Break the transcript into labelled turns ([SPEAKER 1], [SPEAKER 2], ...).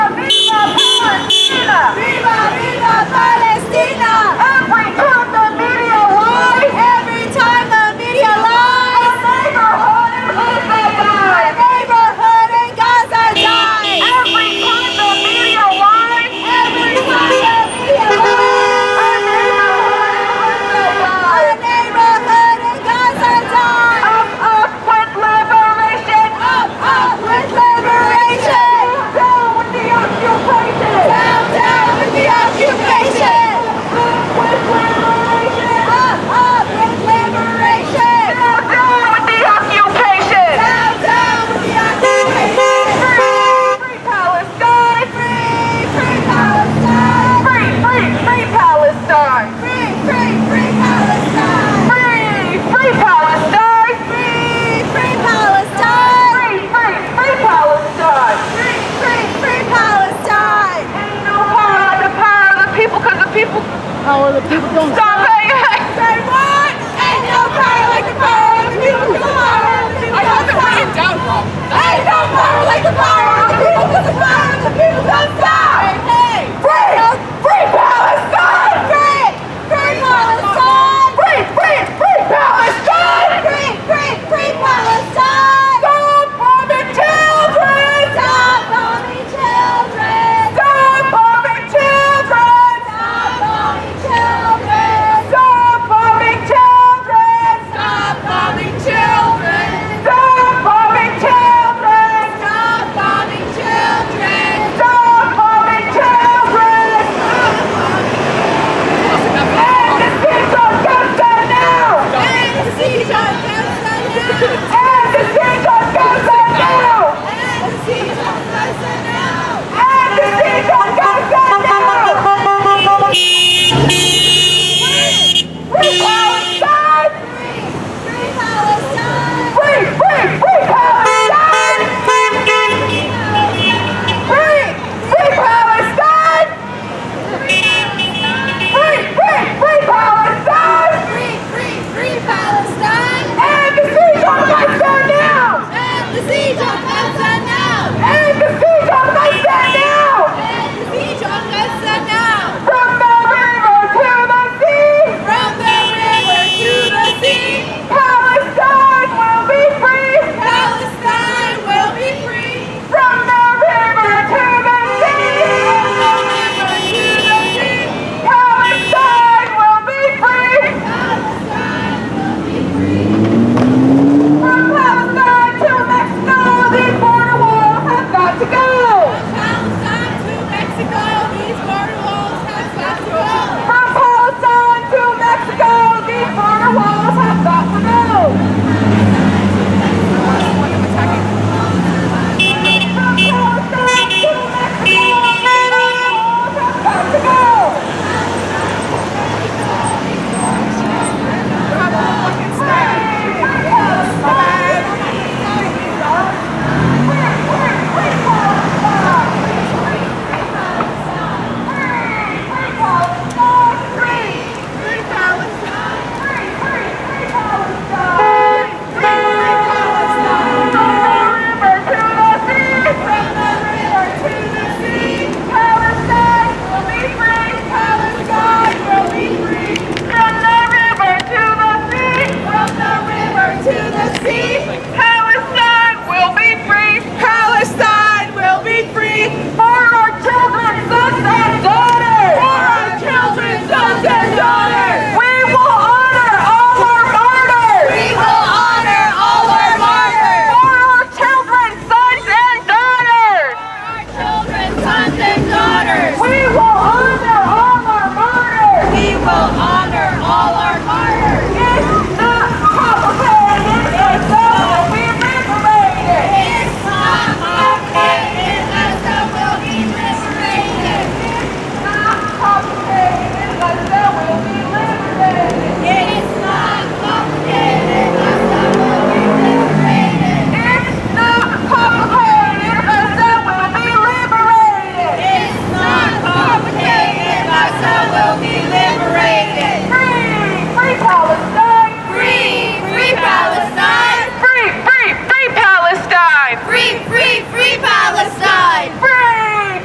[SPEAKER 1] people don't.
[SPEAKER 2] So